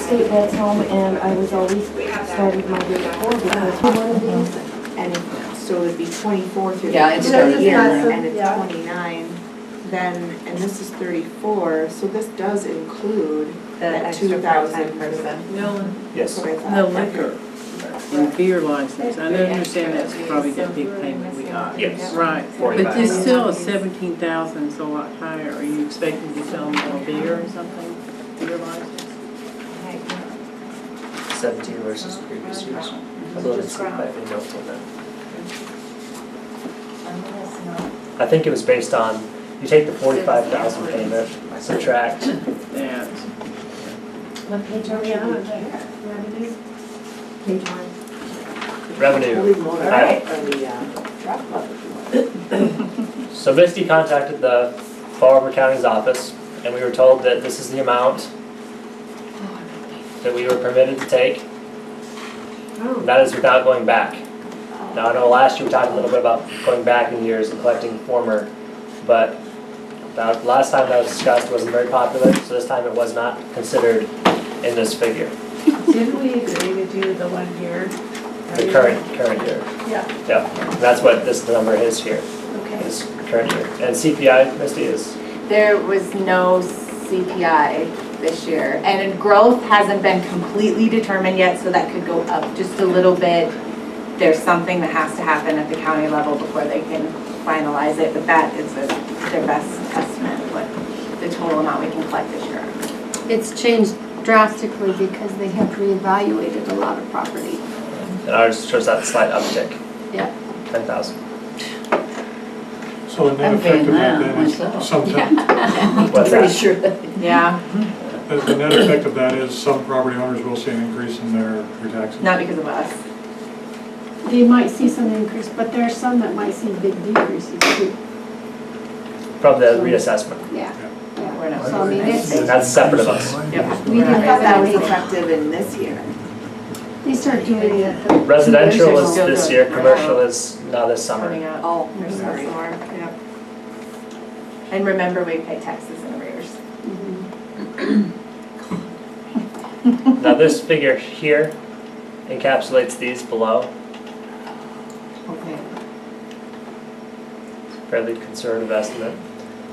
state vets home and I was always started my day before because one of these And Uh-huh. if- so it'd be twenty-four through the Yeah, end it's of the thirty. year, Yeah, so- and it's yeah. twenty-nine, then, and this is thirty-four, so this does include The that two extra thousand. part-time person. No, Yes. no liquor and beer license, I understand that's probably that big payment we got. Yes. Right, but Forty-five. there's still a seventeen thousand is a lot higher, are you expecting to sell more beer or something, beer license? Seventeen versus previous years. Although it's I think no for them. I think it was based on, you take the forty-five thousand payment, subtract, That's, What page are we on? Revenue? page one. revenue. I- So Misty contacted the Fall River County's office, and we were told that this is the amount that we were permitted to take, Oh. and that is without going back. Now, I know last year we talked a little bit about going back in years and collecting former, but that, last time that was discussed wasn't very popular, so this time it was not considered in this figure, Didn't we agree to do the one year? the current, current year. Yeah. Yeah, and that's what this number is here, Okay. is current year. And CPI, Misty, is, There was no CPI this year, and growth hasn't been completely determined yet, so that could go up just a little bit. There's something that has to happen at the county level before they can finalize it, but that is the- their best estimate, of what the total amount we can collect this year. It's changed drastically because they have reevaluated a lot of property. and ours shows that slight uptick. Yeah. Ten thousand. So the net I'm paying effect of that that then is myself. sometimes, What's that? sure Yeah, the net effect of that is some property owners will see an increase in their their taxes. not because of us. They might see some increase, but there are some that might see big decreases too. From the reassessment, Yeah, yeah. We're not. So I mean, it's, and that's separate of us. Yep. we didn't But have that that was way. effective in this year. They start doing it. Residential is Still this good. year, commercial is now this summer. Coming up. Oh, There's still sorry. some more, yep. And remember, we pay taxes in arrears. Mhm. Now, this figure here encapsulates these below, Okay. fairly conservative estimate.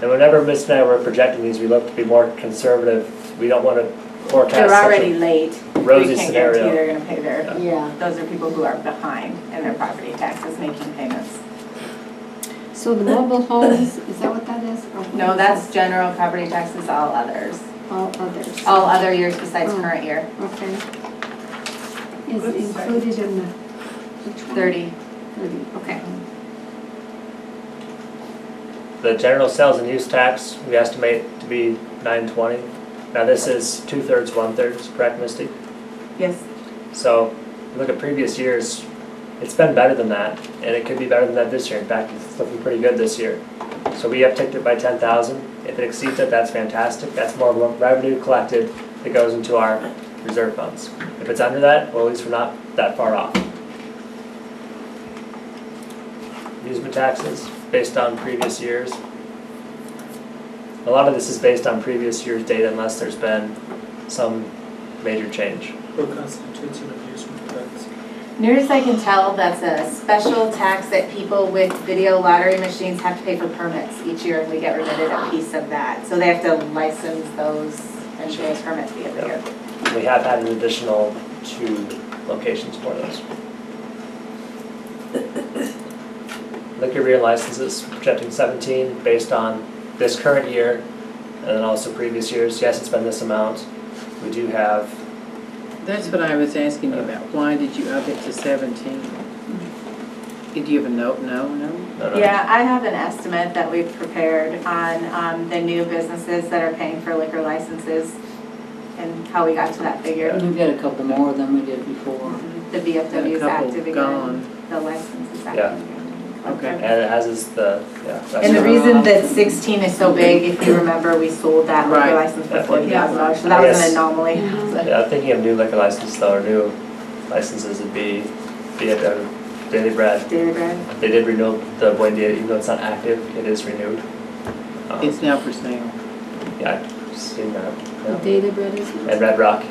And whenever Miss and I were projecting these, we looked to be more conservative. We don't want to forecast They're such already a late. rosy We can't guarantee scenario. they're gonna pay their, yeah. those are people who are behind in their property taxes making payments. So the mobile homes, is that what that is? Or what No, is that's general property taxes, all others, that? All others. all other years besides Mm. current year, Okay. Is included in the. which one? thirty. Thirty, okay. The general sales and use tax, we estimate to be nine twenty. Now, this is two-thirds, one-thirds, correct, Misty? Yes, So, look at previous years, it's been better than that, and it could be better than that this year. In fact, it's looking pretty good this year. So we upticked it by ten thousand. If it exceeds it, that's fantastic. That's more re- revenue collected that goes into our reserve funds. If it's under that, well, at least we're not that far off. Amusement taxes, based on previous years. A lot of this is based on previous year's data unless there's been some major change. What constitutes an amusement tax? Near as I can tell, that's a special tax that people with video lottery machines have to pay for permits each year, and we get remitted a piece of that. So they have to license those and pay those permits the other year. We have had an additional two locations for those. Liquor beer licenses, projecting seventeen based on this current year and then also previous years. Yes, it's been this amount. We do have, That's what I was asking you about, why did you up it to seventeen? Did you have a note, no, no? no, no. Yeah, I have an estimate that we've prepared on um, the new businesses that are paying for liquor licenses and how we got to that figure. We've got a couple more than we did before. The VFW is A couple active again, gone. the license is Yeah. active. again. Okay. And as is the, yeah. that's And the right. reason that sixteen is so big, if you remember, we sold that liquor Right. license for Yeah. forty thousand dollars, so that was Yes. an anomaly. Yeah, thinking of new liquor licenses though, or new licenses would be, be at the Daily Bread. Daily Bread, They did renew the Buen Dia, even though it's not active, it is renewed. Um, It's now for sale. Yeah, I've seen that. yeah. Data bread is. And Red Rock